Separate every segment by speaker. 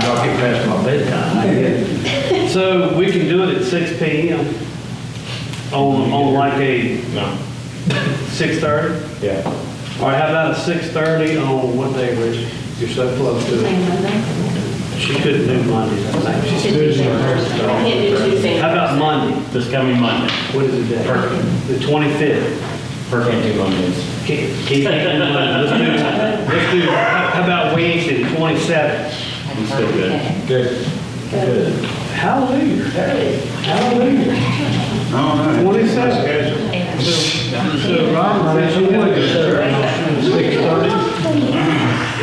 Speaker 1: get past my bedtime, I guess.
Speaker 2: So we can do it at six P M on, on like a
Speaker 3: No.
Speaker 2: six thirty?
Speaker 3: Yeah.
Speaker 2: Or how about a six thirty on what day, Rich? You're so close to it.
Speaker 4: Tuesday.
Speaker 2: She couldn't do Monday, I think. She's-
Speaker 4: I can't do Tuesday.
Speaker 2: How about Monday?
Speaker 3: This coming Monday.
Speaker 2: What is the day?
Speaker 3: Perfect.
Speaker 2: The twenty-fifth.
Speaker 3: Perfect two Mondays.
Speaker 2: Keep, keep that in mind. Let's do, let's do, how how about Wednesday, the twenty-seventh?
Speaker 3: I'm still good.
Speaker 1: Good, good.
Speaker 2: Hallelujah. Hallelujah.
Speaker 5: All right.
Speaker 2: Twenty-seventh. So, Ron, since you want to go, six thirty?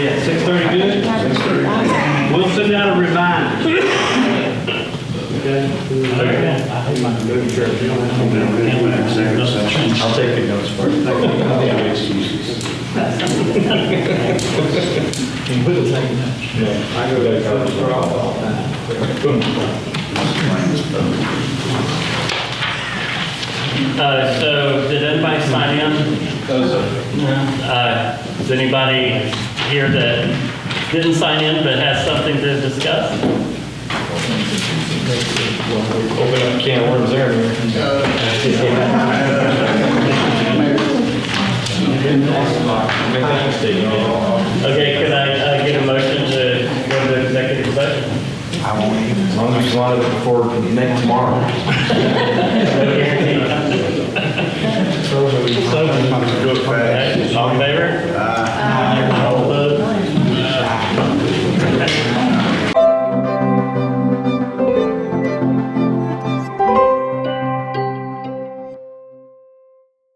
Speaker 2: Yeah, six thirty, good? We'll send out a reminder. Okay? I think my new church, you don't have to-
Speaker 5: Executive session.
Speaker 3: I'll take the notes for it.
Speaker 1: I go to college for all, all time.
Speaker 3: Uh, so did anybody sign in? No. Uh, is anybody here that didn't sign in but has something to discuss? Open up a can of worms there. Okay, could I, uh, get a motion to go to executive session?
Speaker 6: I won't, as long as you want it before next tomorrow.
Speaker 3: No guarantee.
Speaker 5: Good, fast.